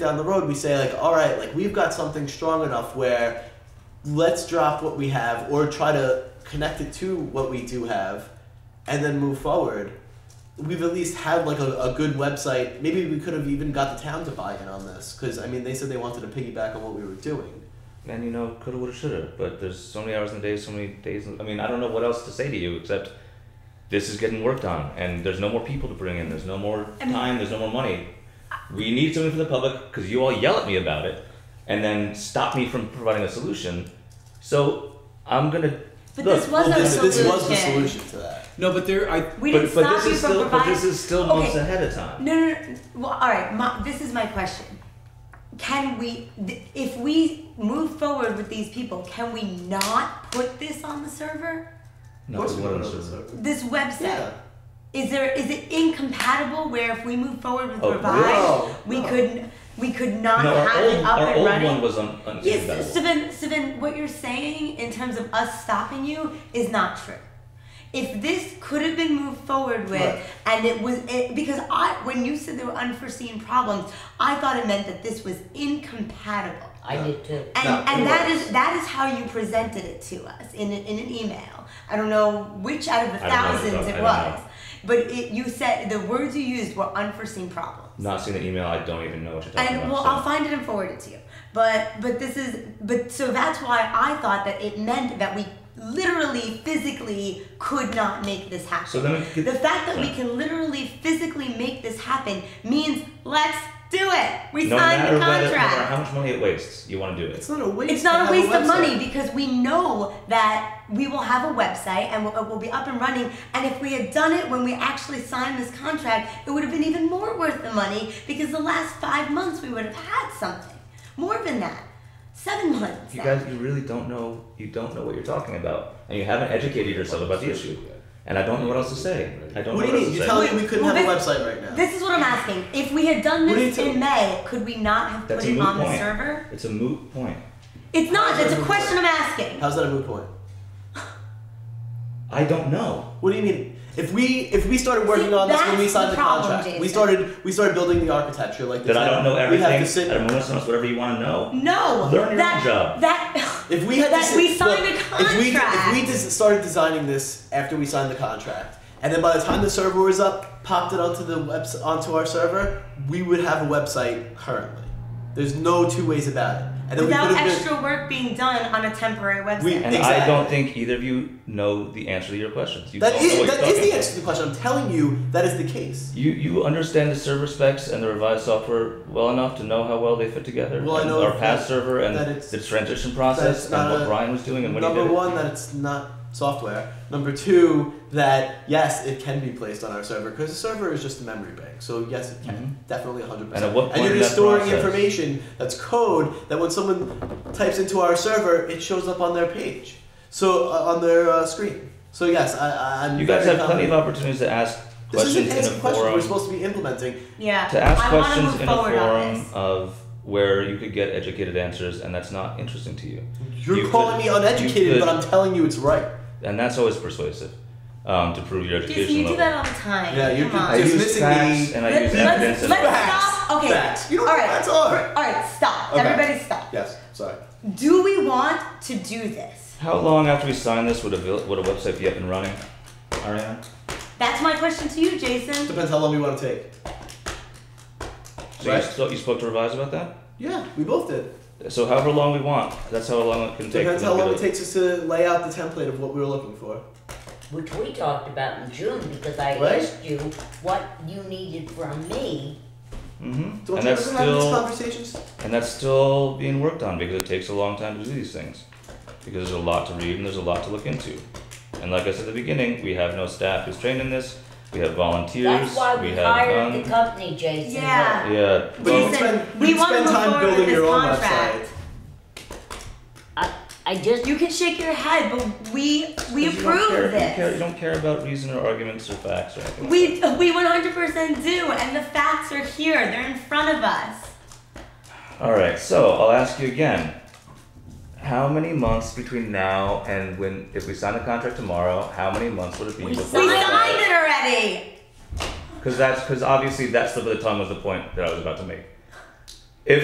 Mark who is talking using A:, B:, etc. A: down the road we say like all right like we've got something strong enough where let's drop what we have or try to connect it to what we do have and then move forward we've at least had like a, a good website maybe we could have even got the town to buy in on this because i mean they said they wanted to piggyback on what we were doing
B: And you know, coulda, woulda, shoulda. But there's so many hours in the day, so many days. in- I mean, I don't know what else to say to you except this is getting worked on, and there's no more people to bring in. There's no more
C: I mean-
B: time. There's no more money. We need something from the public because you all yell at me about it, and then stop me from providing a solution. So I'm gonna.
C: But
B: look,
C: this was
A: Well,
C: a
A: this, this
C: solution.
A: was the solution to that
D: No, but there, I
C: We
B: but,
C: didn't
B: but
C: stop
B: this
C: you
B: is
C: from
B: still, but
C: providing.
B: this is still
C: Okay.
B: months ahead of time.
C: No, no, no. Well, all right. My, this is my question. Can we, th- if we move forward with these people, can we not put this on the server?
A: of
B: No,
A: course we
B: what
A: went
B: else
A: over
B: is
A: the
B: there?
A: server.
C: This website.
A: yeah
C: Is there is it incompatible where if we move forward with
B: Oh,
C: Revive,
A: no,
C: we
A: no.
C: could we could not
B: No, our
C: have
B: old,
C: it up
B: our
C: and
B: old
C: running?
B: one was un- un-
C: Yes, so then, so then what you're saying in terms of us stopping you is not true. If this could have been moved forward with,
A: Right.
C: and it was it, because I, when you said there were unforeseen problems, I thought it meant that this was incompatible,
E: I did too.
C: and
A: No, it
C: and that
A: was.
C: is that is how you presented it to us in an, in an email. I don't know which out of the
B: I don't know,
C: thousands
B: I
C: it
B: don't
C: was,
B: know.
C: but it, you said the words you used were unforeseen problems.
B: Not seeing the email, I don't even know what you're talking
C: And
B: about.
C: well,
B: so-
C: I'll find it and forward it to you. But but this is but so that's why I thought that it meant that we literally physically could not make this happen.
B: So then we could-
C: the fact that we
B: Right.
C: can literally physically make this happen means let's do it. We
B: no
C: signed
B: matter
C: the
B: whether- no matter
C: contract.
B: how much money it wastes, you want to do it.
A: it's not a waste
C: It's
A: to
C: not
A: have
C: a waste of
A: website.
C: money because we know that we will have a website and we'll, we'll be up and running. And if we had done it when we actually signed this contract, it would have been even more worth the money because the last five months we would have had something more than that, seven months.
B: You guys, you really don't know. You don't know what you're talking about, and you haven't educated yourself about the issue. And I don't know what else to say. I don't
A: what do you mean
B: know what
A: you're
B: else to say.
A: telling me we couldn't
C: Well,
A: have a
C: this-
A: website right now
C: This is what I'm asking. If we had done
A: What do
C: this
A: you
C: in May, could we not have
B: That's
C: put
B: a
C: it
B: moot
C: on the
B: point.
C: server?
B: It's a moot point.
C: It's not. That's a
A: Moot
C: question I'm asking.
A: how's that a moot point
B: I don't know.
A: What do you mean? If we if we started working
C: See,
A: on this when
C: that's
A: we signed
C: the
A: the,
C: problem,
A: contract, we
C: Jason.
A: started we started building the architecture like this.
B: That I don't know
A: We
B: everything.
A: have to sit.
B: I don't know someone else, whatever you want to know.
C: No.
B: Learn your
C: that,
B: own job.
C: That.
A: if we had
C: that
A: to sit,
C: we signed
A: look,
C: a
A: If we, if
C: contract.
A: we just started designing this after we signed the contract, and then by the time the server was up, popped it onto the webs onto our server, we would have a website currently. There's no two ways about it. And then
C: Without
A: we could have
C: extra work being done on a temporary website.
A: We-
B: And I
A: Exactly.
B: don't think either of you know the answer to your questions. You
A: Been, that
B: don't know
A: is
B: what
A: that
B: you're
A: is the
B: talking
A: answer to the question. I'm telling you that is the case.
B: about. You you understand the server specs and the revised software well enough to know how well they fit together.
A: Well, I
B: and
A: know
B: our past
A: that-
B: server and
A: that it's-
B: the transition
A: that
B: process
A: it's
B: and
A: not
B: what
A: a-
B: Brian was doing and when he
A: Number
B: did it.
A: one, that it's not software. Number two, that yes, it can be placed on our server because the server is just a memory bank. So yes, it can definitely 100.
B: Mm-hmm. And at what point
A: you're
B: in
A: just
B: that
A: storing
B: process-
A: information that's code that when someone types into our server, it shows up on their page. So uh, on their uh, screen. So yes, I, I, I'm.
B: You guys
A: very
B: have plenty of
A: confident.
B: opportunities to ask
A: This
B: questions
A: isn't
B: in a
A: asking questions. We're
B: forum.
A: supposed to be implementing.
C: yeah.
B: to ask
C: I wanna
B: questions
C: move
B: in a
C: forward on
B: forum
C: this.
B: of where you could get educated answers and that's not interesting to you
A: You're
B: You
A: calling
B: could-
A: me
B: you
A: uneducated, but
B: could-
A: I'm telling you it's right.
B: and that's always persuasive um, to prove your education
C: Jason, you do
B: level
C: that all the time.
A: Yeah, you
C: Come
A: do-
C: on.
B: i use
A: Dismissing
B: facts
A: the-
B: and i
C: Let,
B: use
C: us
B: evidence and
A: let-
C: let's
A: Facts.
C: stop. Okay.
A: Facts. You know what
C: all right.
A: facts are.
C: All right. Stop.
A: Okay.
C: Everybody, stop.
A: Yes. Sorry.
C: Do we want to do this?
B: how long after we sign this would a, vil- would a website be up and running Ariana?
C: That's my question to you, Jason.
A: Depends how long we want to take.
B: so
A: Right.
B: you, so you spoke to revise about that
A: Yeah, we both did.
B: so however long we want that's how long it can take
A: Depends
B: for
A: how
B: them to
A: long it
B: do
A: takes us to lay out the template of what we were looking for.
E: Which we talked about in June because I
A: Right.
E: asked you what you needed from me.
B: Mhm.
A: Don't
B: and
A: you
B: that's
A: remember having these
B: still
A: conversations?
B: and that's still being worked on because it takes a long time to do these things because there's a lot to read and there's a lot to look into and like i said at the beginning we have no staff who's trained in this we have volunteers
E: That's why
B: we,
E: we,
B: have
E: hired
B: um,
E: the company, Jason.
C: Yeah.
B: yeah
A: But you
B: well,
A: can
C: Jason,
A: spend-
C: we
A: you can
C: want
A: spend
C: to move
A: time
C: forward
A: building
C: with
A: your
C: this
A: own
C: contract.
A: website.
E: I, I just
C: You can shake your head, but we
B: because
C: we
B: you don't
C: approve
B: care-
C: of
B: you care- you
C: this.
B: don't care about reason or arguments or facts or anything like
C: We we 100% do, and the facts are here. They're in front of us.
B: that. all right so i'll ask you again how many months between now and when if we sign the contract tomorrow how many months would it be
E: We
C: We
B: before
E: Signed
C: signed it already.
B: because that's because obviously that's slip of the tongue was the point that i was about to make